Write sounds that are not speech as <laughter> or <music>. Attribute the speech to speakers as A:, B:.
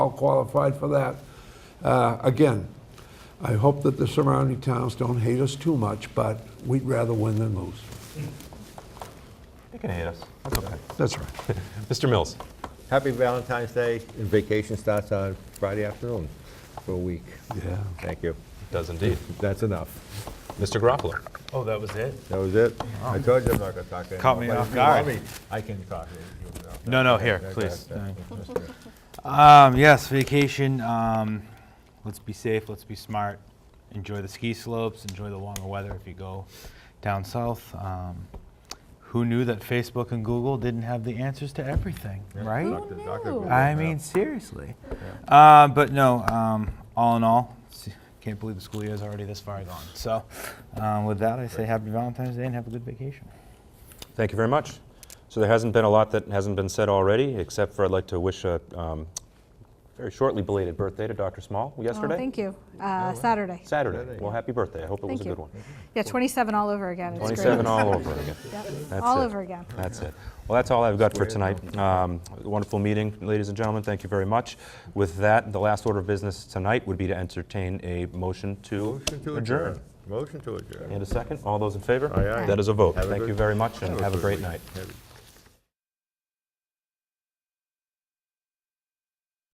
A: all qualified for that. Uh, Again, I hope that the surrounding towns don't hate us too much, but we'd rather win than lose.
B: You can hate us. That's okay.
A: That's right.
B: Mr. Mills.
C: Happy Valentine's Day, and vacation starts on Friday afternoon for a week.
A: Yeah.
C: Thank you.
B: Does indeed.
C: That's enough.
B: Mr. Garoppolo.
D: Oh, that was it?
C: That was it. I told you I'm not gonna talk anymore.
D: Caught me
C: but if
D: off
C: you want
D: guard.
C: me, I can talk. You know.
D: No, no, here,
C: Okay,
D: please.
C: okay.
D: Um, yes, vacation. Um, let's be safe. Let's be smart. Enjoy the ski slopes. Enjoy the warmer weather if you go down south. Um, who knew that Facebook and Google didn't have the answers to everything, right?
C: Doctor- Doctor Google,
D: I
C: yeah.
D: mean, seriously. Uh, but no, um, all in all, s- can't believe the school year is already this far gone. So, um, with that, I say happy Valentine's Day and have a good vacation.
B: Thank you very much. So there hasn't been a lot that hasn't been said already, except for I'd like to wish a um, very shortly belated birthday to Dr. Small yesterday.
E: Oh, thank you. Uh, Saturday.
B: Saturday. Well, happy birthday. I hope it was
E: Thank
B: a
E: you.
B: good one.
E: Yeah, 27 all over again. It's great.
B: 27 all over again.
E: <laughs> Yep.
B: That's
E: All
B: it.
E: over again.
B: That's it. Well, that's all I've got for tonight. Um, Wonderful meeting, ladies and gentlemen. Thank you very much. With that, the last order of business tonight would be to entertain a motion to
C: Motion to
B: adjourn.
C: Motion to adjourn.
B: And a second? All those in favor?
C: Aye, aye.
B: That is a vote.
C: Have a
B: Thank
C: good-
B: you very much and have a
C: good
B: great
C: week.
B: night.
C: Have a-